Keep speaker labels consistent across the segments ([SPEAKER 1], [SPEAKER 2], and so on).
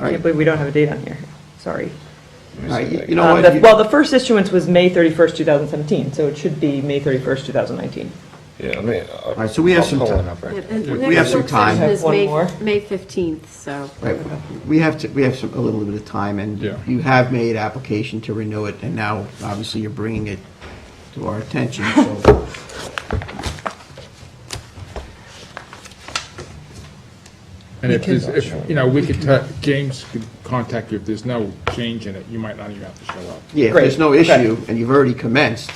[SPEAKER 1] I can't believe we don't have a date on here, sorry.
[SPEAKER 2] All right, you you know
[SPEAKER 1] Um,
[SPEAKER 2] what?
[SPEAKER 1] the-
[SPEAKER 2] You-
[SPEAKER 1] Well, the first issuance was May 31st, 2017, so it should be May 31st, 2019.
[SPEAKER 3] Yeah, I mean. uh, All
[SPEAKER 2] right, so we have some time. We have some time.
[SPEAKER 1] Have one more.
[SPEAKER 4] May 15th, so.
[SPEAKER 2] Right, we have to, we have some, a little bit of time, and
[SPEAKER 5] Yeah.
[SPEAKER 2] you have made application to renew it, and now, obviously, you're bringing it to our attention, so.
[SPEAKER 5] And if there's, if, you know, we could, ta- James could contact you, if there's no change in it, you might not even have to show up.
[SPEAKER 2] Yeah, if there's no
[SPEAKER 1] Great, okay.
[SPEAKER 2] issue, and you've already commenced.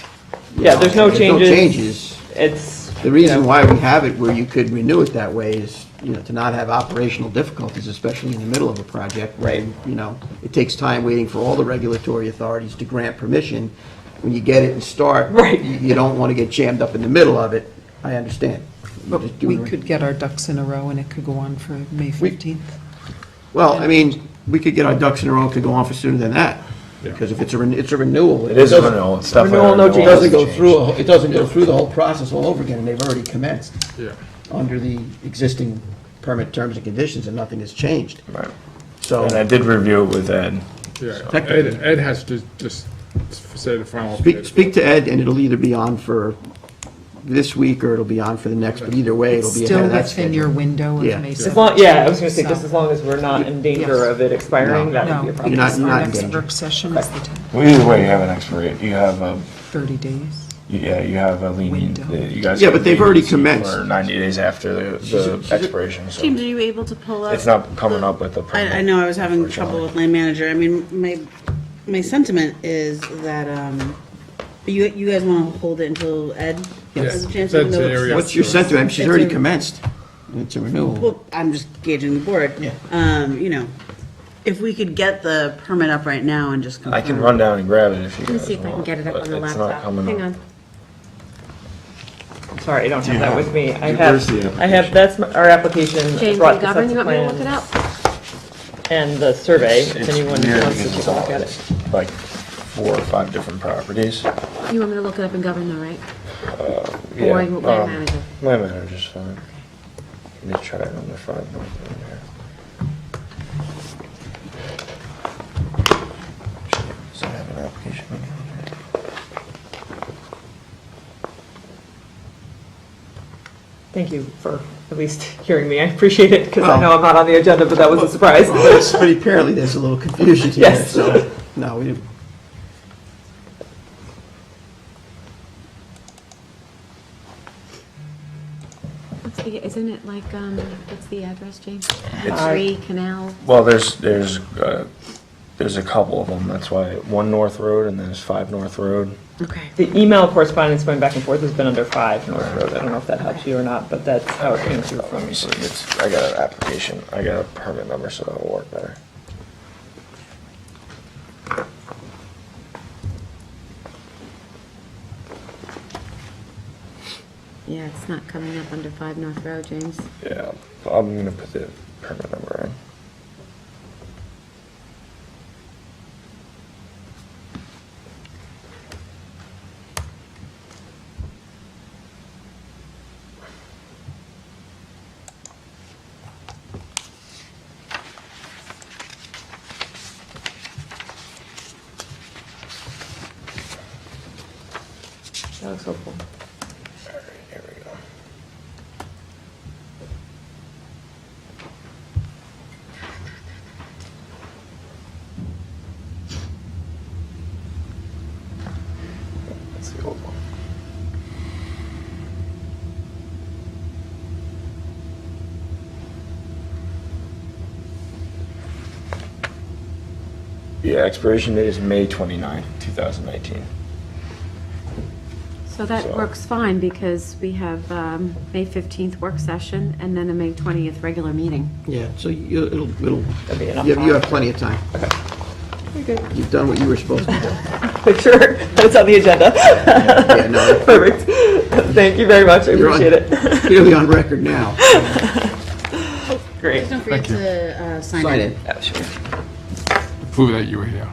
[SPEAKER 2] you
[SPEAKER 1] Yeah,
[SPEAKER 2] know,
[SPEAKER 1] there's no
[SPEAKER 2] if
[SPEAKER 1] changes.
[SPEAKER 2] changes,
[SPEAKER 1] It's.
[SPEAKER 2] The
[SPEAKER 1] you
[SPEAKER 2] reason
[SPEAKER 1] know,
[SPEAKER 2] why we have it where you could renew it that way is, you know, to not have operational difficulties, especially in the middle of a project.
[SPEAKER 1] Right.
[SPEAKER 2] You know, it takes time waiting for all the regulatory authorities to grant permission. When you get it and start.
[SPEAKER 1] Right.
[SPEAKER 2] You you don't want to get jammed up in the middle of it. I understand. You're
[SPEAKER 6] But
[SPEAKER 2] just
[SPEAKER 6] we
[SPEAKER 2] doing the-
[SPEAKER 6] could get our ducks in a row, and it could go on for May 15th.
[SPEAKER 2] Well, I mean, we could get our ducks in a row, it could go on for sooner than that. Because if it's a, ren- it's a renewal.
[SPEAKER 3] It is a
[SPEAKER 2] doesn't-
[SPEAKER 3] renewal, it's definitely a
[SPEAKER 1] Renewal, no
[SPEAKER 3] renewal.
[SPEAKER 2] It
[SPEAKER 1] changes.
[SPEAKER 2] doesn't go through, a- it doesn't go through the whole process all over again, and they've already commenced.
[SPEAKER 5] Yeah.
[SPEAKER 2] under the existing permit terms and conditions, and nothing has changed.
[SPEAKER 3] Right.
[SPEAKER 2] So,
[SPEAKER 3] And I did review it with Ed.
[SPEAKER 5] Yeah, Ed,
[SPEAKER 2] Technically-
[SPEAKER 5] Ed has to just say the final.
[SPEAKER 2] speak, speak to Ed, and it'll either be on for this week, or it'll be on for the next, but either way, it'll be ahead
[SPEAKER 6] Still
[SPEAKER 2] of that
[SPEAKER 6] within your
[SPEAKER 2] schedule.
[SPEAKER 6] window of
[SPEAKER 2] Yeah.
[SPEAKER 6] May
[SPEAKER 1] As long,
[SPEAKER 6] 17th.
[SPEAKER 1] yeah, I was going to say,
[SPEAKER 6] so-
[SPEAKER 1] just as long as we're not in danger
[SPEAKER 6] Yes.
[SPEAKER 1] of it expiring, that would be a
[SPEAKER 6] No,
[SPEAKER 1] problem.
[SPEAKER 2] not-
[SPEAKER 6] because
[SPEAKER 2] you're
[SPEAKER 6] our
[SPEAKER 2] not in
[SPEAKER 6] next
[SPEAKER 2] danger.
[SPEAKER 6] work session is the 10th,
[SPEAKER 3] Well, either way, you have an expiration, you have a,
[SPEAKER 6] 30 days.
[SPEAKER 3] yeah, you have a lenient,
[SPEAKER 6] Window.
[SPEAKER 3] you guys.
[SPEAKER 2] Yeah,
[SPEAKER 3] have
[SPEAKER 2] but they've already
[SPEAKER 3] leniency
[SPEAKER 2] commenced.
[SPEAKER 3] For ninety days after the, the expiration, so.
[SPEAKER 4] James, are you able to pull up?
[SPEAKER 3] It's not coming up with the.
[SPEAKER 7] I, I
[SPEAKER 3] permit,
[SPEAKER 7] know I was having
[SPEAKER 3] unfortunately.
[SPEAKER 7] trouble with land manager. I mean, my, my sentiment is that, um, you, you guys want to hold it until Ed has a chance to
[SPEAKER 5] That's the area.
[SPEAKER 7] know.
[SPEAKER 2] What's your sentiment? She's
[SPEAKER 7] It's
[SPEAKER 2] already
[SPEAKER 7] a-
[SPEAKER 2] commenced. It's a renewal.
[SPEAKER 7] Well, I'm just gauging the board.
[SPEAKER 2] Yeah.
[SPEAKER 7] Um, you know, if we could get the permit up right now and just confirm.
[SPEAKER 3] I can run down and grab it if you guys
[SPEAKER 4] Let me
[SPEAKER 3] want.
[SPEAKER 4] see if I can get it up
[SPEAKER 3] but
[SPEAKER 4] on the
[SPEAKER 3] it's not
[SPEAKER 4] laptop.
[SPEAKER 3] coming
[SPEAKER 4] Hang
[SPEAKER 3] up.
[SPEAKER 4] on.
[SPEAKER 1] Sorry, I don't have that with me. I
[SPEAKER 5] where's
[SPEAKER 1] have,
[SPEAKER 5] the
[SPEAKER 1] I have, that's my- our application. I
[SPEAKER 4] James
[SPEAKER 1] brought the sets
[SPEAKER 4] McGovern, you
[SPEAKER 1] of
[SPEAKER 4] want me to look it
[SPEAKER 1] plans
[SPEAKER 4] up?
[SPEAKER 1] And the survey, if
[SPEAKER 3] It's
[SPEAKER 1] anyone
[SPEAKER 3] weird
[SPEAKER 1] wants to
[SPEAKER 3] because
[SPEAKER 1] take
[SPEAKER 3] it's
[SPEAKER 1] a
[SPEAKER 3] all-
[SPEAKER 1] look at it.
[SPEAKER 3] it's Like four or five different properties.
[SPEAKER 4] You want me to look it up in Govern though, right?
[SPEAKER 3] Yeah,
[SPEAKER 4] Or you want land
[SPEAKER 3] um,
[SPEAKER 4] manager?
[SPEAKER 3] Land manager's fine. Let me try it on the front. Does it have an application?
[SPEAKER 1] Thank you for at least hearing me. I appreciate it because I
[SPEAKER 2] Well-
[SPEAKER 1] know I'm not on the agenda, but that was a surprise.
[SPEAKER 2] But apparently, there's a little confusion here,
[SPEAKER 1] Yes.
[SPEAKER 2] so, no, we didn't.
[SPEAKER 4] What's the, isn't it like, um, what's the address, James?
[SPEAKER 3] It's-
[SPEAKER 4] Three Canal,
[SPEAKER 3] Well, there's, there's, uh, there's a couple of them, that's why, one North Road and then there's five North Road.
[SPEAKER 4] okay.
[SPEAKER 1] The email correspondence going back and forth has been under five North Road. I don't know if that helps you or not, but that's how it came through
[SPEAKER 3] Let
[SPEAKER 1] from
[SPEAKER 3] me see, it's, I got an application, I got a permit number, so that'll work better.
[SPEAKER 4] Yeah, it's not coming up under Five North Road, James.
[SPEAKER 3] Yeah, I'm gonna put the permit number in.
[SPEAKER 1] That was helpful.
[SPEAKER 3] Alright, Here we go. That's the old one. Yeah, expiration date is May 29, 2019.
[SPEAKER 4] So that
[SPEAKER 3] So-
[SPEAKER 4] works fine because we have, um, May 15th work session and then a May 20th regular meeting.
[SPEAKER 2] Yeah, so you, it'll, it'll,
[SPEAKER 1] That'd be enough
[SPEAKER 2] you have- you
[SPEAKER 1] time.
[SPEAKER 2] have plenty of time.
[SPEAKER 1] Okay.
[SPEAKER 2] You've done what you were supposed to do.
[SPEAKER 1] Make sure that it's on the agenda.
[SPEAKER 2] no.
[SPEAKER 1] Perfect. Thank you very much. I
[SPEAKER 2] You're on-
[SPEAKER 1] appreciate it.
[SPEAKER 2] Clearly on record now.
[SPEAKER 1] Great.
[SPEAKER 7] Don't forget to, uh,
[SPEAKER 2] Sign it,
[SPEAKER 1] Yeah, sure.
[SPEAKER 5] Prove that you were here.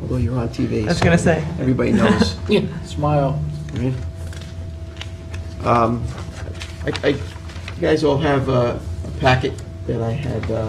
[SPEAKER 2] although you're on TV.
[SPEAKER 1] I was
[SPEAKER 2] so-
[SPEAKER 1] going to say.
[SPEAKER 2] Everybody knows. Yeah, smile. Um, I, I, you guys all have uh, a packet that I had uh,